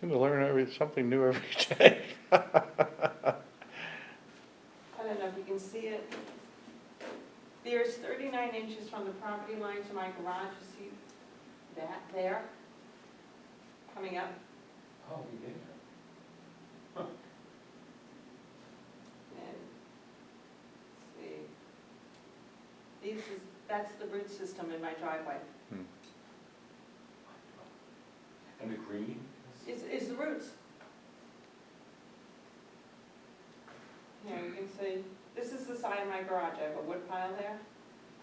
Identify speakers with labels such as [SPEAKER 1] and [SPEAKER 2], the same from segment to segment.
[SPEAKER 1] Seem to learn every, something new every day.
[SPEAKER 2] I don't know if you can see it. There's 39 inches from the property line to my garage, you see that there? Coming up,
[SPEAKER 3] Oh, we did.
[SPEAKER 2] and, see. This is, that's the root system in my driveway.
[SPEAKER 3] And the green?
[SPEAKER 2] Is, is the roots. Here, you can see, this is the side of my garage, I have a wood pile there.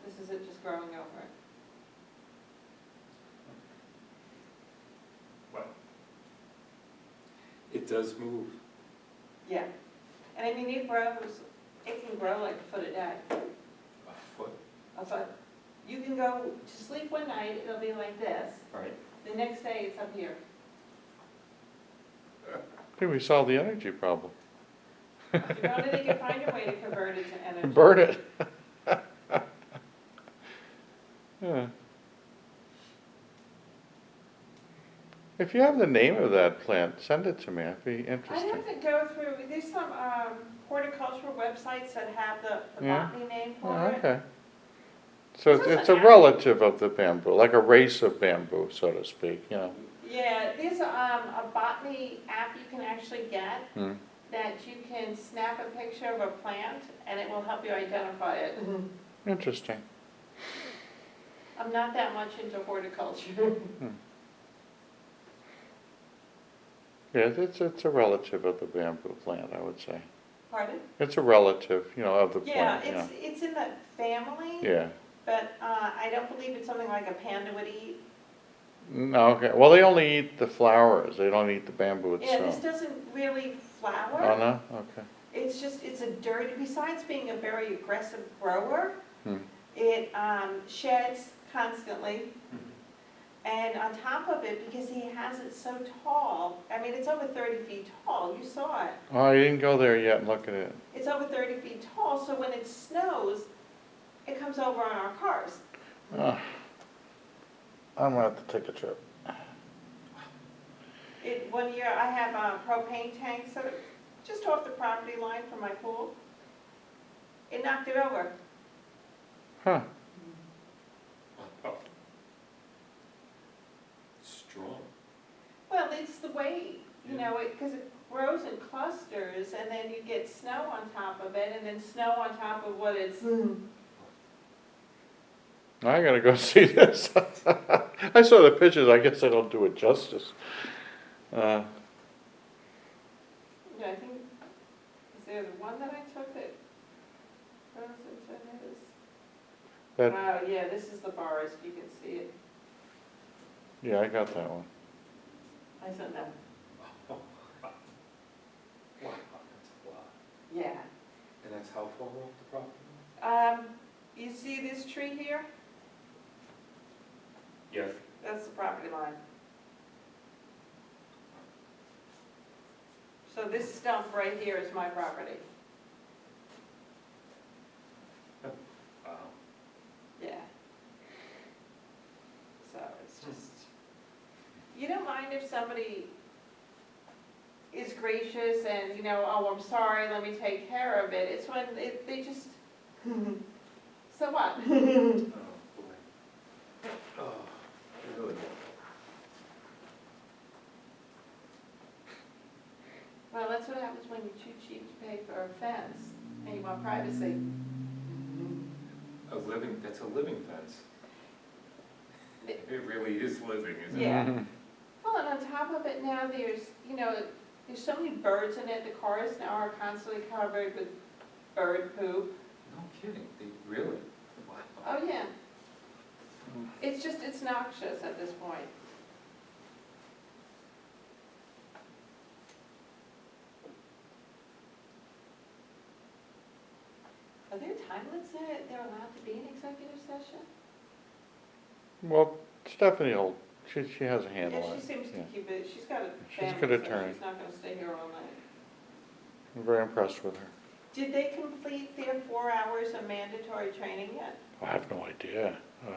[SPEAKER 2] This is it just growing over it.
[SPEAKER 3] It does move.
[SPEAKER 2] Yeah, and I mean, it grows, it can grow like a foot a day.
[SPEAKER 3] A foot.
[SPEAKER 2] I thought, you can go to sleep one night, it'll be like this,
[SPEAKER 3] Right.
[SPEAKER 2] the next day it's up here.
[SPEAKER 1] I think we solved the energy problem.
[SPEAKER 2] You know, they can find a way to convert it to energy.
[SPEAKER 1] Burn it. Yeah. If you have the name of that plant, send it to me, it'd be
[SPEAKER 2] I
[SPEAKER 1] interesting.
[SPEAKER 2] have to go through, there's some um, horticultural websites that have the the
[SPEAKER 1] Yeah.
[SPEAKER 2] botany name
[SPEAKER 1] Oh,
[SPEAKER 2] for it.
[SPEAKER 1] okay. So it's,
[SPEAKER 2] This
[SPEAKER 1] it's a
[SPEAKER 2] is an-
[SPEAKER 1] relative of the bamboo, like a race of bamboo, so to speak, you know.
[SPEAKER 2] Yeah, there's um, a botany app you can actually get
[SPEAKER 1] Hmm.
[SPEAKER 2] that you can snap a picture of a plant and it will help you identify it.
[SPEAKER 1] Interesting.
[SPEAKER 2] I'm not that much into horticulture.
[SPEAKER 1] Yeah, it's, it's a relative of the bamboo plant, I would say.
[SPEAKER 2] Pardon?
[SPEAKER 1] It's a relative, you know, of the
[SPEAKER 2] Yeah,
[SPEAKER 1] plant, yeah.
[SPEAKER 2] it's, it's in that family.
[SPEAKER 1] Yeah.
[SPEAKER 2] But uh, I don't believe it's something like a panda would eat.
[SPEAKER 1] No, okay, well, they only eat the flowers, they don't eat the bamboo
[SPEAKER 2] Yeah, this
[SPEAKER 1] itself.
[SPEAKER 2] doesn't really
[SPEAKER 1] Oh,
[SPEAKER 2] flower.
[SPEAKER 1] no, okay.
[SPEAKER 2] It's just, it's a dirty, besides being a very aggressive grower,
[SPEAKER 1] Hmm.
[SPEAKER 2] it um, sheds constantly. And on top of it, because he has it so tall, I mean, it's over 30 feet tall, you saw it.
[SPEAKER 1] Oh, I didn't go there yet and look at it.
[SPEAKER 2] It's over 30 feet tall, so when it snows, it comes over on our cars.
[SPEAKER 1] Ah. I'm gonna have to take a trip.
[SPEAKER 2] It, one year, I have uh, propane tanks that are just off the property line from my pool. It knocked it over.
[SPEAKER 1] Huh,
[SPEAKER 3] Strong.
[SPEAKER 2] Well, it's the weight, you know, because it grows in clusters, and then you get snow on top of it, and then snow on top of what it's.
[SPEAKER 1] I gotta go see this. I saw the pictures, I guess I don't do it justice. Uh,
[SPEAKER 2] Yeah, I think, is there the one that I took that grows into this?
[SPEAKER 1] That-
[SPEAKER 2] Wow, yeah, this is the forest, you can see it.
[SPEAKER 1] yeah, I got that one.
[SPEAKER 2] I said that,
[SPEAKER 3] Wow, that's a lot.
[SPEAKER 2] yeah.
[SPEAKER 3] And that's how far off the property?
[SPEAKER 2] Um, you see this tree here?
[SPEAKER 3] Yes.
[SPEAKER 2] That's the property line. So this stump right here is my property,
[SPEAKER 3] Wow.
[SPEAKER 2] yeah. So it's just, you don't mind if somebody is gracious and, you know, oh, I'm sorry, let me take care of it. It's when it- they just, so what?
[SPEAKER 3] Oh, boy. Oh, really?
[SPEAKER 2] Well, that's what happens when you're too cheap to pay for a fence and you want privacy.
[SPEAKER 3] A living, that's a living fence. It really is living, isn't it?
[SPEAKER 2] Yeah.
[SPEAKER 1] Mm-hmm.
[SPEAKER 2] Well, and on top of it now, there's, you know, there's so many birds in it, the cars now are constantly covered with bird poop.
[SPEAKER 3] No kidding, they, really? Wow.
[SPEAKER 2] Oh, yeah.
[SPEAKER 1] Mm-hmm.
[SPEAKER 2] It's just, it's noxious at this point. Are there time limits that they're allowed to be in executive session?
[SPEAKER 1] Well, Stephanie will, she, she has a handle
[SPEAKER 2] Yeah,
[SPEAKER 1] on
[SPEAKER 2] she
[SPEAKER 1] it.
[SPEAKER 2] seems to
[SPEAKER 1] yeah.
[SPEAKER 2] keep it, she's got a
[SPEAKER 1] She's a
[SPEAKER 2] family,
[SPEAKER 1] good
[SPEAKER 2] so
[SPEAKER 1] attorney.
[SPEAKER 2] she's not gonna stay here all night.
[SPEAKER 1] I'm very impressed with her.
[SPEAKER 2] Did they complete their four hours of mandatory training yet?
[SPEAKER 1] I have no idea. Uh,